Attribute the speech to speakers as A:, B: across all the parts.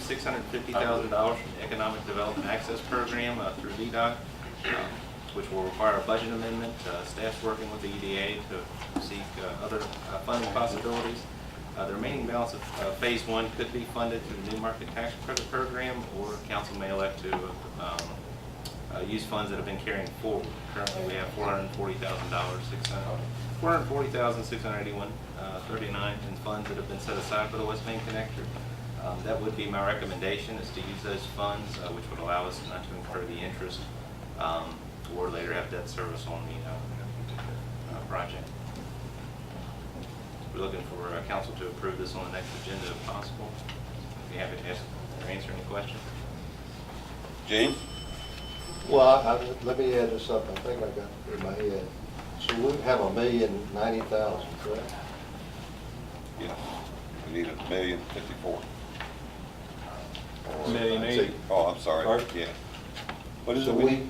A: six hundred fifty thousand dollars from the Economic Development Access Program uh, through VDOT, um, which will require a budget amendment. Uh, Staff's working with the EDA to seek uh, other uh, funding possibilities. Uh, The remaining balance of uh, Phase One could be funded through the New Market Tax Credit Program, or council may elect to um, uh, use funds that have been carrying forward. Currently, we have four hundred and forty thousand dollars, six hundred, four hundred and forty thousand, six hundred and eighty-one, uh, thirty-nine in funds that have been set aside for the West Main Connector. Um, that would be my recommendation, is to use those funds, uh, which would allow us not to incur the interest, um, or later have debt service on the, uh, uh, project. We're looking for uh, council to approve this on the next agenda if possible. Be happy to ask or answer any questions.
B: James?
C: Well, I, I- let me add this up, I think I got it in my head. So we have a million ninety thousand, correct?
B: Yes. We need a million fifty-four. Or-
D: Million eighty.
B: Oh, I'm sorry,
D: Or-
B: yeah. What is
C: So
B: it?
C: we,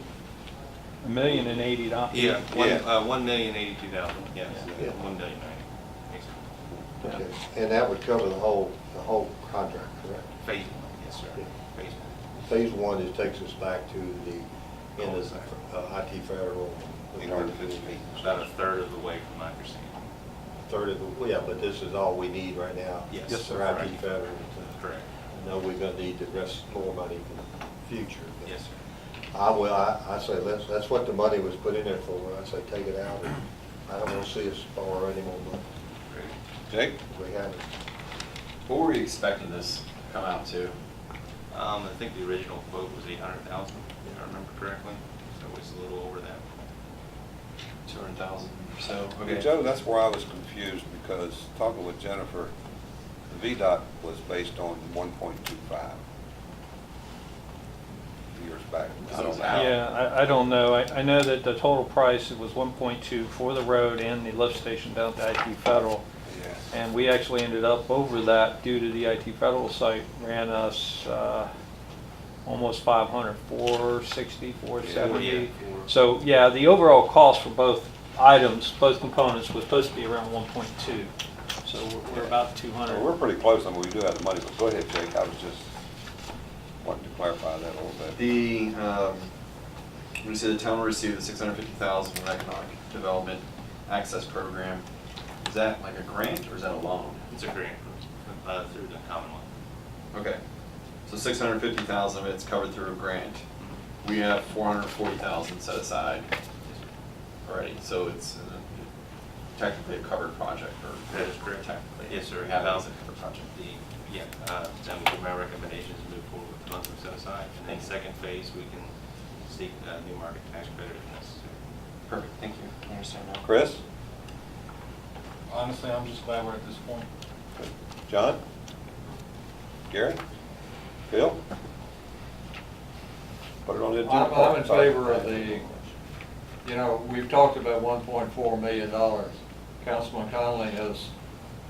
D: A million and eighty dollars.
A: Yeah, one,
B: Yeah.
A: uh, one million eighty-two thousand, yes,
C: Yeah.
A: one million ninety.
C: okay, and that would cover the whole, the whole contract, correct?
A: Phase one, yes, sir,
C: Yeah.
A: phase one.
C: Phase one, it takes us back to the end of uh, IT federal.
B: Eight hundred fifty feet.
A: About a third of the way from my understanding.
C: Third of, the well, yeah, but this is all we need right now.
A: Yes. Yes,
C: For
A: sir.
C: IT federal.
A: Correct.
C: I know we're gonna need the rest, more money for the future. but-
A: Yes, sir.
C: I will, I, I say, that's, that's what the money was put in there for, I say, take it out, I don't wanna see us borrow any more money,
B: Jake?
C: we haven't.
E: What were we expecting this to come out to?
A: Um, I think the original quote was eight hundred thousand, if I remember correctly, so it was a little over that.
E: Two hundred thousand or so?
B: Okay, Joe, that's where I was confused, because talking with Jennifer, the VDOT was based on one point two five. Years back. I don't know.
D: Yeah, I, I don't know. I, I know that the total price was one point two for the road and the lift station down to IT Federal.
B: Yeah.
D: And we actually ended up over that due to the IT Federal site ran us, uh, almost 500, 460, 470.
A: Yeah, four.
D: So, yeah, the overall cost for both items, both components was supposed to be around one point two. So we're- we're about two hundred.
B: Well, We're pretty close, I mean, we do have the money, but go ahead, Jake, I was just wanting to clarify that a little bit.
E: The, um, we said the town will receive the six hundred fifty thousand from the Economic Development Access Program. Is that like a grant or is that a loan?
A: It's a grant, from, uh, through the Commonwealth.
E: Okay, so six hundred fifty thousand of it's covered through a grant. We have four hundred forty thousand set aside already, so it's uh, technically a covered project or.
A: That is correct.
E: Technically.
A: Yes, sir.
E: We have it as a covered project.
A: The, yeah, uh, that would be my recommendation is move forward with the funds we've set aside. And then second phase, we can seek, uh, new market tax credit if necessary.
E: Perfect, thank you. I understand now.
B: Chris?
F: Honestly, I'm just glad we're at this point.
B: John? Gary? Bill? Put it on the agenda.
F: I'm, I'm in favor of the, you know, we've talked about one point four million dollars. Councilman Conley has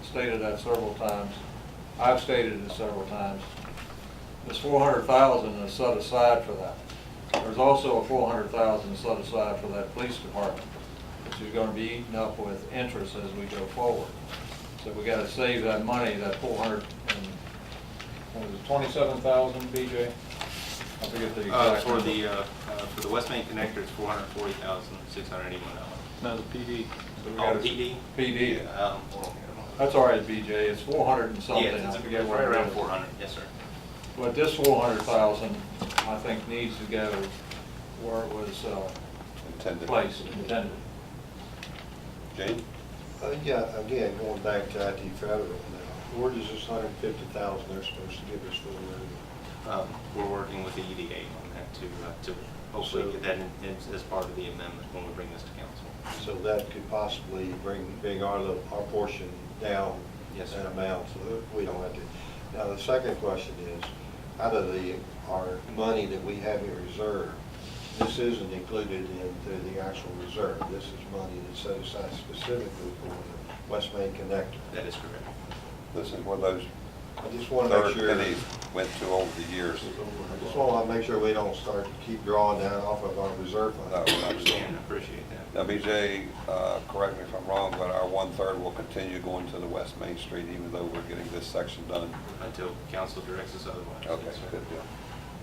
F: stated that several times. I've stated it several times. There's four hundred thousand is set aside for that. There's also a four hundred thousand set aside for that police department, which is gonna be eaten up with interest as we go forward. So we gotta save that money, that four hundred and, what was it, twenty-seven thousand, BJ? I forget the
A: Uh,
F: exact.
A: for
F: number.
A: the, uh, uh, for the West Main Connector, it's four hundred forty thousand, six hundred eighty-one dollars.
D: No, the PD.
F: So we
A: Oh,
F: gotta-
A: PD?
F: PD.
A: Um,
F: That's all right, BJ, it's four hundred and something.
A: Yeah, it's
F: I
A: it's
F: forget
A: right
F: what it
A: around
F: is.
A: four hundred, yes, sir.
F: But this four hundred thousand, I think, needs to go where it was uh,
B: Intended.
F: placed, intended.
B: Jane?
C: Uh, yeah, again, going back to IT federal now, where does this hundred and fifty thousand they're supposed to give us for the road?
A: Um, We're working with the EDA on that to, uh, to
C: So-
A: hopefully get that in- in- as part of the amendment when we bring this to council.
C: So that could possibly bring, bring our, little- our portion down.
A: Yes,
C: That
A: sir.
C: amount, so that we don't have to. Now, the second question is, out of the, our money that we have in reserve, this isn't included into the actual reserve. This is money that's set aside specifically for the West Main Connector.
A: That is correct.
B: This is one of those
C: I just want to
B: Third
C: make sure, I
B: penny went to over the years.
C: just want to make sure we don't start to keep drawing down off of our reserve fund.
B: No,
A: Understand,
B: absolutely.
A: appreciate that.
B: Now, BJ, uh, correct me if I'm wrong, but our one-third will continue going to the West Main Street even though we're getting this section done.
A: Until council directs us otherwise.
B: Okay,
A: Yes, sir.
B: good deal.